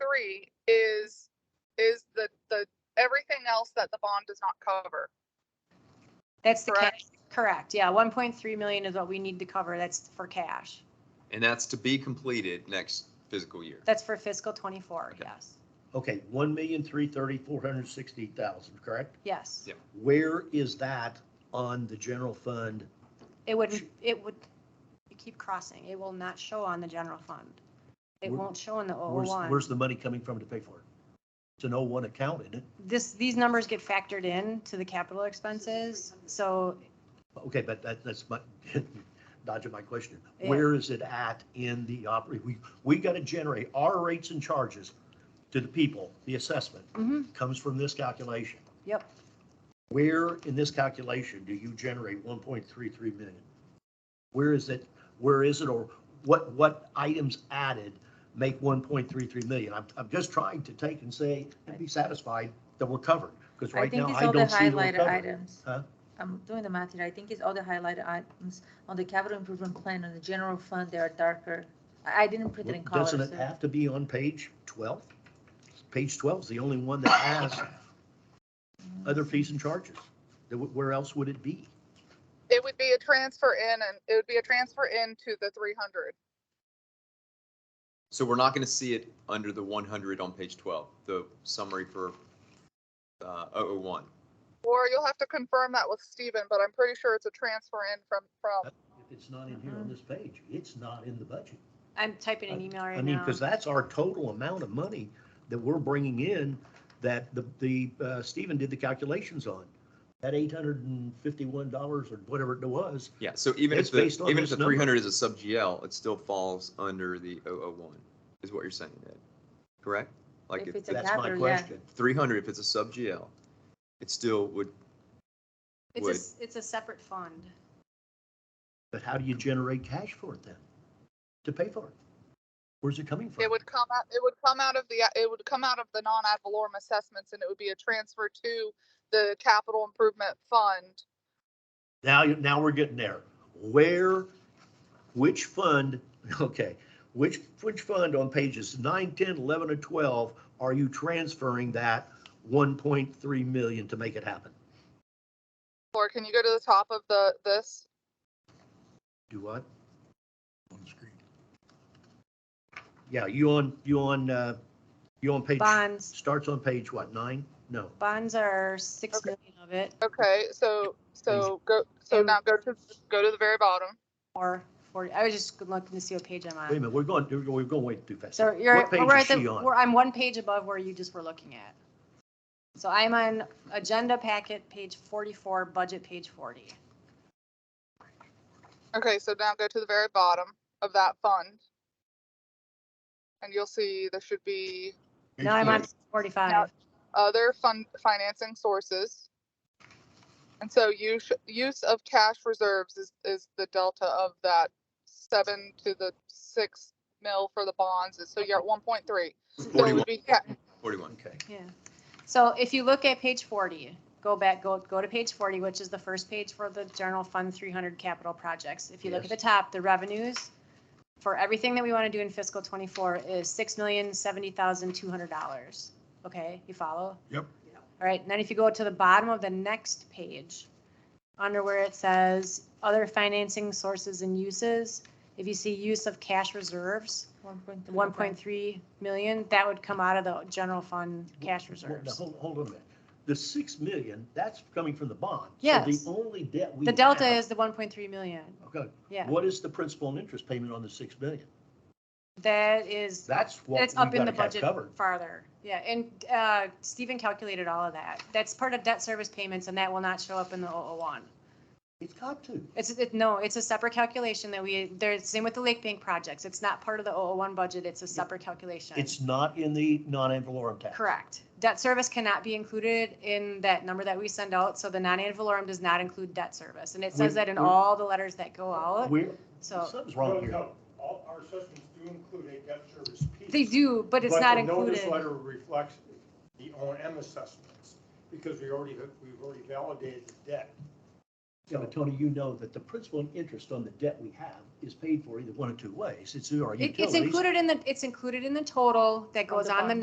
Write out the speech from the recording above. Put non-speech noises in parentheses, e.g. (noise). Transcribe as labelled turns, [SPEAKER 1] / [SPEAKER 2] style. [SPEAKER 1] policy is, is the, the, everything else that the bond does not cover.
[SPEAKER 2] That's the
[SPEAKER 1] Correct.
[SPEAKER 2] cash, correct, yeah, one point three million is what we need to cover, that's for cash,
[SPEAKER 3] And that's to be completed next fiscal year.
[SPEAKER 2] that's for fiscal twenty-four,
[SPEAKER 3] Okay.
[SPEAKER 2] yes,
[SPEAKER 4] Okay, one million, three thirty, four hundred sixty thousand, correct?
[SPEAKER 2] yes.
[SPEAKER 3] Yep.
[SPEAKER 4] Where is that on the general fund?
[SPEAKER 2] It wouldn't, it would, you keep crossing, it will not show on the general fund. It
[SPEAKER 4] Where-
[SPEAKER 2] won't show in the
[SPEAKER 4] Where's, where's
[SPEAKER 2] one
[SPEAKER 4] the money coming from to pay for it? It's an oh one account, isn't it?
[SPEAKER 2] This, these numbers get factored in to the capital expenses, so
[SPEAKER 4] Okay, but that, that's my, (laughs) dodging my question.
[SPEAKER 2] Yeah.
[SPEAKER 4] Where is it at in the operate, we, we gotta generate our rates and charges to the people, the assessment
[SPEAKER 2] mhm,
[SPEAKER 4] comes from this calculation.
[SPEAKER 2] Yep.
[SPEAKER 4] Where in this calculation do you generate one point three three million? Where is it, where is it, or what, what items added make one point three three million? I'm, I'm just trying to take and say, and be satisfied that we're covered, because
[SPEAKER 5] I
[SPEAKER 4] right
[SPEAKER 5] think
[SPEAKER 4] now
[SPEAKER 5] it's
[SPEAKER 4] I
[SPEAKER 5] all the
[SPEAKER 4] don't see we're
[SPEAKER 5] highlighted
[SPEAKER 4] covered.
[SPEAKER 5] items.
[SPEAKER 4] Huh?
[SPEAKER 5] I'm doing the math here. I think it's all the highlighted items on the capital improvement plan, on the general fund, they are darker. I I didn't print it in
[SPEAKER 4] Well,
[SPEAKER 5] color.
[SPEAKER 4] Doesn't it
[SPEAKER 5] so-
[SPEAKER 4] have to be on page 12? Page 12 is the only one that has other fees and charges. Then wh- Where else would it be?
[SPEAKER 1] It would be a transfer in and it would be a transfer into the three hundred.
[SPEAKER 3] So we're not going to see it under the 100 on page 12, the summary for uh, 001.
[SPEAKER 1] Or you'll have to confirm that with Steven, but I'm pretty sure it's a transfer in from, from,
[SPEAKER 4] If it's not in here on this page, it's not in the budget.
[SPEAKER 2] I'm typing an email
[SPEAKER 4] I
[SPEAKER 2] right
[SPEAKER 4] mean,
[SPEAKER 2] now.
[SPEAKER 4] because that's our total amount of money that we're bringing in that the, the, uh, Stephen did the calculations on. That $851 or whatever it was,
[SPEAKER 3] Yeah, so even
[SPEAKER 4] It's
[SPEAKER 3] if the,
[SPEAKER 4] based on
[SPEAKER 3] even if
[SPEAKER 4] this
[SPEAKER 3] the
[SPEAKER 4] number.
[SPEAKER 3] 300 is a sub GL, it still falls under the 001, is what you're saying, Ed, correct? Like,
[SPEAKER 5] If
[SPEAKER 3] if
[SPEAKER 5] it's a
[SPEAKER 3] the
[SPEAKER 4] that's my
[SPEAKER 5] capital, yeah.
[SPEAKER 4] question.
[SPEAKER 3] 300, if it's a sub GL, it still would,
[SPEAKER 2] It's a, s- it's a separate fund.
[SPEAKER 4] But how do you generate cash for it then? To pay for it? Where's it coming from?
[SPEAKER 1] it would come out, it would come out of the, it would come out of the non-ad valorem assessments and it would be a transfer to the capital improvement fund.
[SPEAKER 4] Now, you- now we're getting there. Where, which fund, (laughs) okay, which, which fund on pages nine, ten, eleven, and twelve are you transferring that one point three million to make it happen?
[SPEAKER 1] Or can you go to the top of the, this?
[SPEAKER 4] Do what? On the screen. Yeah, you on, you on, uh, you on page,
[SPEAKER 2] Bonds,
[SPEAKER 4] starts on page what, nine? No,
[SPEAKER 2] bonds are six
[SPEAKER 1] Okay.
[SPEAKER 2] million of it,
[SPEAKER 1] Okay, so, so go, so
[SPEAKER 2] And-
[SPEAKER 1] now go to, go to the very bottom.
[SPEAKER 2] or forty, I was just looking to see what page I'm
[SPEAKER 4] wait a
[SPEAKER 2] on.
[SPEAKER 4] minute, we're going, we're going way too fast.
[SPEAKER 2] So you're,
[SPEAKER 4] What page
[SPEAKER 2] we're
[SPEAKER 4] is
[SPEAKER 2] at the,
[SPEAKER 4] she on?
[SPEAKER 2] we're, I'm one page above where you just were looking at. So I'm on agenda packet, page forty-four, budget page forty.
[SPEAKER 1] Okay, so now go to the very bottom of that fund. And you'll see there should be
[SPEAKER 2] Now I'm on forty-five.
[SPEAKER 1] other fund financing sources. And so use, use of cash reserves is, is the delta of that seven to the six mil for the bonds. and So you're at one point three. So it
[SPEAKER 3] 41,
[SPEAKER 1] would be, ca-
[SPEAKER 3] 41.
[SPEAKER 4] Okay.
[SPEAKER 2] Yeah. So if you look at page 40, go back, go, go to page 40, which is the first page for the general fund 300 capital projects. If you look at the
[SPEAKER 4] Yes.
[SPEAKER 2] top, the revenues for everything that we want to do in fiscal 24 is $6,070,200. Okay, you follow?
[SPEAKER 4] Yep.
[SPEAKER 2] All right, and then if you go to the bottom of the next page, under where it says other financing sources and uses, if you see use of cash reserves,
[SPEAKER 5] 1.3.
[SPEAKER 2] 1.3 million, that would come out of the general fund cash
[SPEAKER 4] Well, now,
[SPEAKER 2] reserves.
[SPEAKER 4] Hold, hold on a minute. The six million, that's coming from the bond. So
[SPEAKER 2] Yes.
[SPEAKER 4] The only debt we.
[SPEAKER 2] The delta
[SPEAKER 4] have-
[SPEAKER 2] is the 1.3 million.
[SPEAKER 4] Okay,
[SPEAKER 2] Yeah,
[SPEAKER 4] what is the principal and interest payment on the six million?
[SPEAKER 2] that is,
[SPEAKER 4] That's what we
[SPEAKER 2] that's up in the
[SPEAKER 4] gotta have
[SPEAKER 2] budget
[SPEAKER 4] covered.
[SPEAKER 2] farther. Yeah, and uh, Stephen calculated all of that. That's part of debt service payments and that will not show up in the 001.
[SPEAKER 4] It's got to.
[SPEAKER 2] It's, it, no, it's a separate calculation that we, there's, same with the Lake Bank projects. It's not part of the 001 budget. It's a separate calculation.
[SPEAKER 4] It's not in the non-ad valorem tax.
[SPEAKER 2] Correct. Debt service cannot be included in that number that we send out, so the non-ad valorem does not include debt service. And it says
[SPEAKER 4] We-
[SPEAKER 2] that in
[SPEAKER 4] we-
[SPEAKER 2] all the letters that go out,
[SPEAKER 4] We're,
[SPEAKER 2] so
[SPEAKER 4] something's wrong here.
[SPEAKER 6] No, no, All our assessments do include a debt service piece.
[SPEAKER 2] they do, but it's not
[SPEAKER 6] But the notice letter
[SPEAKER 2] included.
[SPEAKER 6] reflects the O and M assessments, because we already, we've already validated the debt.
[SPEAKER 4] Yeah, but Tony, you know that the principal and interest on the debt we have is paid for either one of two ways. It's through our
[SPEAKER 2] It- It's
[SPEAKER 4] utilities.
[SPEAKER 2] included in the, it's included in the total that
[SPEAKER 5] Of
[SPEAKER 2] goes
[SPEAKER 5] the
[SPEAKER 2] on the
[SPEAKER 5] bond.